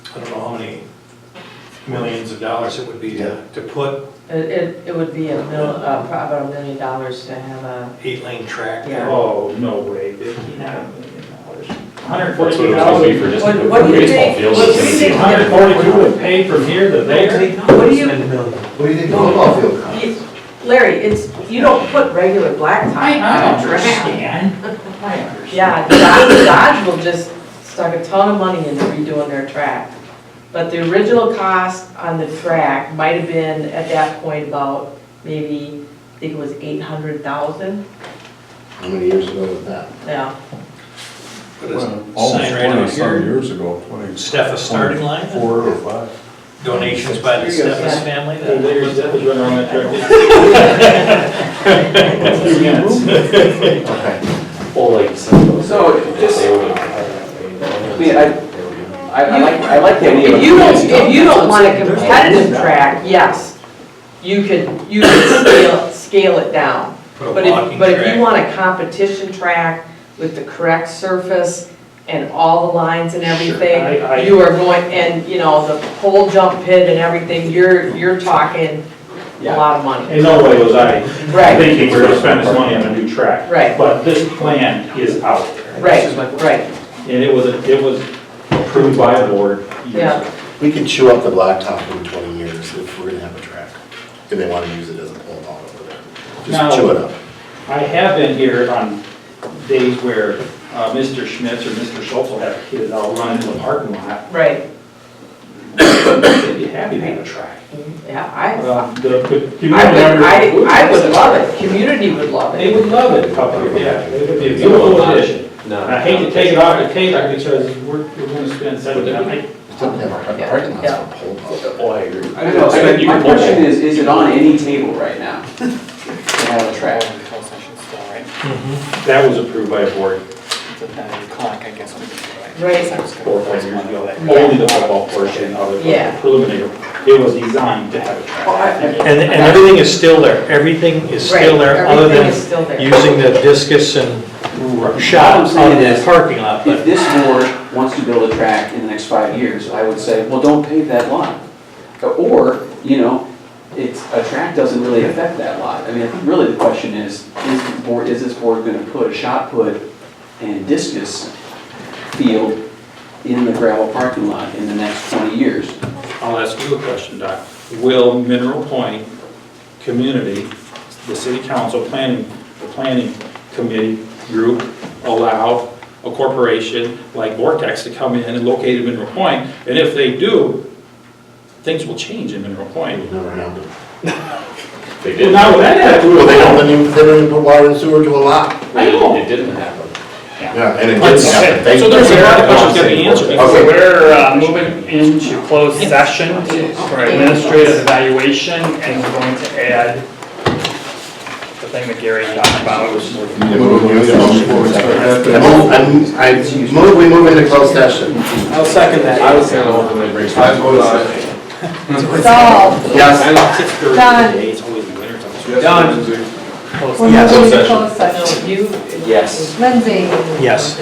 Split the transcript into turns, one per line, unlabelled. I don't know how many millions of dollars it would be to, to put
It, it, it would be a mil, uh, pro- about a million dollars to have a,
eight-lane track.
Yeah.
Oh, no way, fifty million dollars. Hundred
That's what it was gonna be for just
What- what do you
baseball
think-
fields.
what do you
It's
think?
gonna
Hundred forty-two would pay from here to there?
What do you-
Spend a million.
What do you think the football field costs?
You- Larry, it's, you don't put regular blacktop on track.
understand. I understand.
Yeah, Dodge, Dodge will just stuck a ton of money into redoing their track. But the original cost on the track might have been at that point about maybe, I think it was eight hundred thousand,
How many years ago was that?
yeah.
Put a
Almost
sign right out
twenty-some
here,
years ago, twenty.
Steph a starting line?
Four or five.
donations by the Steffes family.
Well, Larry's
that-
death is running on that track.
Okay.
Well, like, some of those.
So, just-
They would-
I mean, I-
They would-
I, I like, I like the idea of.
If you don't, if you don't want a competitive track, yes, you could, you could scale, scale it down.
Put a
But if,
walking
but if you
track.
want a competition track with the correct surface and all the lines and
Sure, I- I-
everything, you are going, and, you know, the pole jump pit and everything, you're, you're talking a
Yeah.
lot of money.
In no way was I
Right,
thinking we're gonna spend this money on a new track.
Right.
But this plan is out there.
right, right,
And it was, it was approved by the board. years
Yeah.
ago.
We could chew up the blacktop in twenty years if we're gonna have a track, and they wanna use it as a pole barn over there.
Now-
Just chew it up.
I have been here on days where uh, Mr. Schmitz or Mr. Schultz will have kids out running in the parking lot.
right,
They'd be happy to have a track.
yeah, I,
Um, The the community
I would,
members
I, I would
would-
love it, community would love
They
it.
would love it up here, yeah. It would be a beautiful addition.
No.
And I hate to take it off the table because we're, we're gonna spend seven, I,
Just don't have a parking lot for a pole barn.
Oh, I agree.
I don't know, I mean, my question is, is it on any table right now? To have a track?
closed session still, right?
that was approved by a board
It's at nine o'clock, I guess, we could do it.
Right.
So I was gonna-
four or five years ago. that Only the football portion of it
Yeah.
was preliminary. It was designed to have a track.
Well, I-
And, and everything is still there, everything is still there,
Right,
other
everything
than
is still there.
using the discus and
All
shot
I'm
out
saying
of the
is-
parking lot, but
If this board wants to build a track in the next five years, I would say, well, don't pave that lot. Or, you know, it's, a track doesn't really affect that lot. I mean, I think really the question is, is the board, is this board gonna put a shot put and discus field in the gravel parking lot in the next twenty years?
I'll ask you a question, Doc. Will Mineral Point Community, the city council planning, the planning committee group allow a corporation like Vortex to come in and locate in Mineral Point? And if they do, things will change in Mineral Point.
It never happened.
They
Well,
didn't.
now with that attitude,
Well, they don't even, they don't even put water and sewer to a lot.
I know.
It didn't happen.
Yeah, and it
But-
didn't happen. They-
So there's a lot of questions that be answered.
Okay.
So we're uh, moving into closed session for administrative evaluation, and we're going to add the thing that Gary talked about, which is
I move, we move- I move, we move into closed session.
I'll second that.
I was kind of hoping they'd bring some.
Solved.
Yes.
It's thirty
Done.
days, it's always the winter time.
Done.
Yes. You.
Yes.
Lindsay.
yes.